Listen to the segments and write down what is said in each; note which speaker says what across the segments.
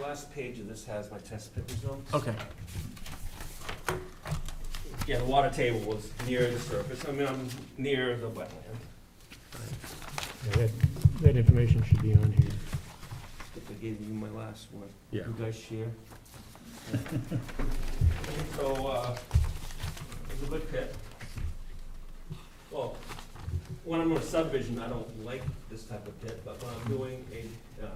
Speaker 1: last page of this has my test pit results.
Speaker 2: Okay,
Speaker 1: Yeah, the water table was near the surface, I mean, I'm near the wetland.
Speaker 3: Yeah, That that information should be on here.
Speaker 1: I think I gave you my last one.
Speaker 2: yeah.
Speaker 1: You guys share? So, uh, it's a good pit. Well, when I'm on a subdivision, I don't like this type of pit, but when I'm doing a, uh,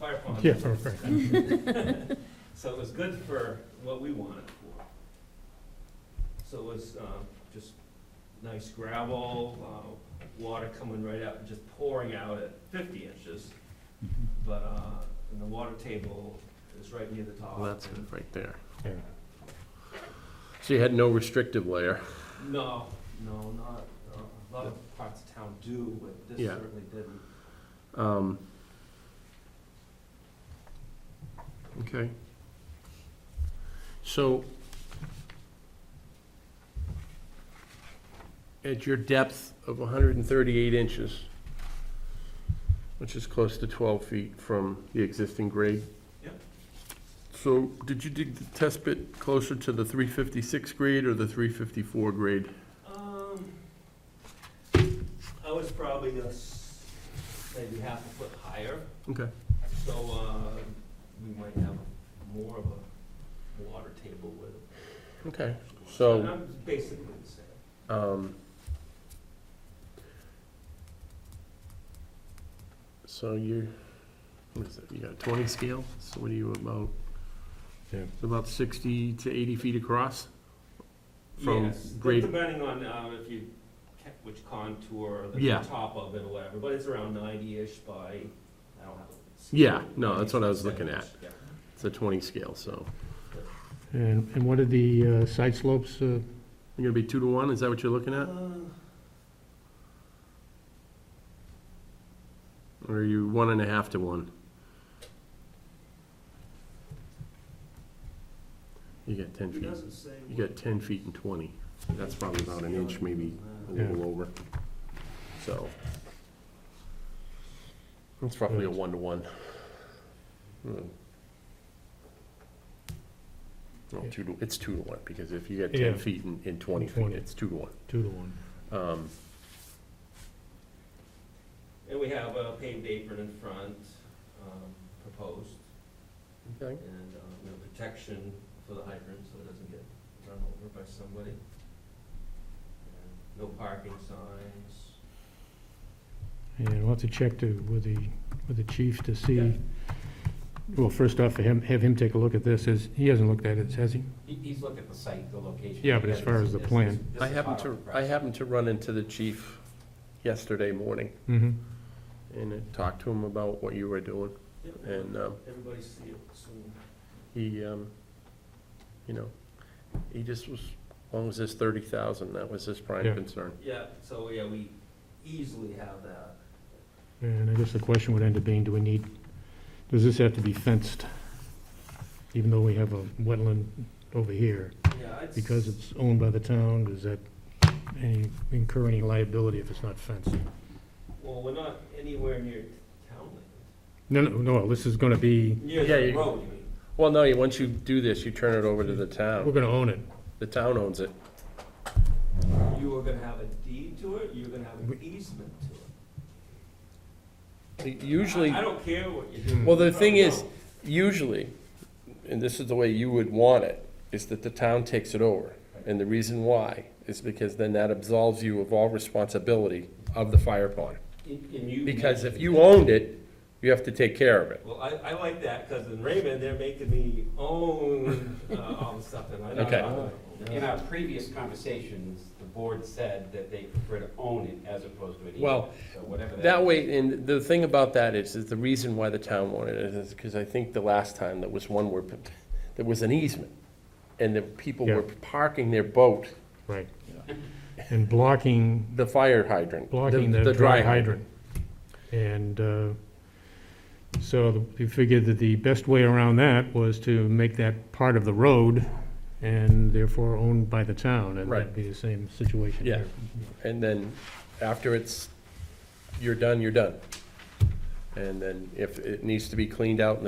Speaker 1: fire pond.
Speaker 3: Yeah, for, for,
Speaker 1: So it was good for what we wanted for. So it was, um, just nice gravel, uh, water coming right out, just pouring out at fifty inches. But, uh, and the water table is right near the top.
Speaker 2: Well, that's it right there.
Speaker 3: yeah.
Speaker 2: So you had no restrictive layer?
Speaker 1: No, no, not, uh, a lot of parts of town do, but this
Speaker 2: Yeah.
Speaker 1: certainly didn't.
Speaker 2: Um, Okay. So at your depth of 138 inches, which is close to 12 feet from the existing grade?
Speaker 1: Yep.
Speaker 2: So did you dig the test pit closer to the 356 grade or the 354 grade?
Speaker 1: Um, I was probably gonna s- maybe half a foot higher.
Speaker 2: Okay.
Speaker 1: So, uh, we might have more of a water table with it.
Speaker 2: Okay. So-
Speaker 1: And I'm Basically the same.
Speaker 2: Um, So you're, what is it, you got a twenty scale, so what are you about?
Speaker 3: Yeah.
Speaker 2: It's About sixty to eighty feet across? From
Speaker 1: Yes,
Speaker 2: grade-
Speaker 1: Depending on, uh, if you, ca- which contour, the
Speaker 2: Yeah.
Speaker 1: top of it or whatever, but it's around ninety-ish by, I don't have. a scale.
Speaker 2: Yeah, no, that's what I was looking at.
Speaker 1: Yeah.
Speaker 2: It's a twenty scale, so
Speaker 3: And, and what are the uh, side slopes? uh,
Speaker 2: you're gonna be two to one, is that what you're looking at?
Speaker 1: Uh,
Speaker 2: Or are you one and a half to one? You got ten
Speaker 1: It
Speaker 2: feet,
Speaker 1: doesn't say.
Speaker 2: you
Speaker 1: what-
Speaker 2: got ten feet and twenty, that's probably about an inch, maybe a
Speaker 1: Uh,
Speaker 2: little over, so. It's roughly a
Speaker 3: Right.
Speaker 2: one-to-one. Hmm. No,
Speaker 3: Yeah.
Speaker 2: two to, it's two to one, because if you get
Speaker 3: Yeah.
Speaker 2: ten feet and, and twenty feet,
Speaker 3: 20.
Speaker 2: it's two to one.
Speaker 3: Two to one.
Speaker 2: Um,
Speaker 1: And we have a paved apron in front, um, proposed,
Speaker 2: okay,
Speaker 1: and, uh, you know, protection for the hydrant, so it doesn't get run over by somebody. And No parking signs.
Speaker 3: And we'll have to check to, with the, with the chief to
Speaker 1: Yeah.
Speaker 3: see, well, first off, for him, have him take a look at this, as, he hasn't looked at it, has he?
Speaker 4: He, he's looked at the site, the location.
Speaker 3: Yeah, but as far as the
Speaker 4: This is-
Speaker 3: plan.
Speaker 4: this
Speaker 2: I
Speaker 4: is
Speaker 2: happened
Speaker 4: part
Speaker 2: to,
Speaker 4: of the
Speaker 2: I happened to run into the chief yesterday morning,
Speaker 3: Mm-hmm.
Speaker 2: and I talked to him about what you were doing,
Speaker 1: Yep,
Speaker 2: and, um,
Speaker 1: Everybody see it soon.
Speaker 2: he, um, you know, he just was, as long as it's thirty thousand, that was his prime
Speaker 3: Yeah.
Speaker 2: concern.
Speaker 1: Yeah, so, yeah, we easily have that.
Speaker 3: And I guess the question would end up being, do we need, does this have to be fenced? Even though we have a wetland over here,
Speaker 1: Yeah, it's.
Speaker 3: because it's owned by the town, does that any, incur any liability if it's not fenced?
Speaker 1: Well, we're not anywhere near town
Speaker 3: No, no, no, this is gonna be,
Speaker 1: land. Near
Speaker 2: Yeah,
Speaker 1: the
Speaker 2: you-
Speaker 1: road, you mean?
Speaker 2: Well, no, you- once you do this, you turn it over to the
Speaker 3: we're
Speaker 2: town.
Speaker 3: gonna own it.
Speaker 2: The town owns it.
Speaker 1: You were gonna have a deed to it, you were gonna have an easement to it.
Speaker 2: Usually,
Speaker 1: I I don't care what you do.
Speaker 2: well, the thing
Speaker 1: No,
Speaker 2: is, usually, and this is the way you would want it, is that the town takes it over. And the reason why is because then that absolves you of all responsibility of the fire pond.
Speaker 1: no. And- and you-
Speaker 2: Because if you owned it, you have to take care of it.
Speaker 1: Well, I, I like that, because in Raymond, they're making me own uh, all the stuff that I don't
Speaker 2: Okay.
Speaker 1: own.
Speaker 4: plan. In our previous conversations, the board said that they prefer to own it as opposed to an easement.
Speaker 2: Well,
Speaker 4: So whatever that.
Speaker 2: That way, and the thing about that is, is the reason why the town wanted it is because I think the last time there was one where, p- there was an easement. And the people were
Speaker 3: Yeah.
Speaker 2: parking their boat,
Speaker 3: Right. And blocking,
Speaker 2: the fire hydrant.
Speaker 3: blocking the dry hydrant. And uh, so the- we figured that the best way around that was to make that part of the road and therefore owned by the town. And
Speaker 2: Right.
Speaker 3: that'd be the same situation
Speaker 2: Yeah.
Speaker 3: here.
Speaker 2: And then after it's, you're done, you're done. And then if it needs to be cleaned out in the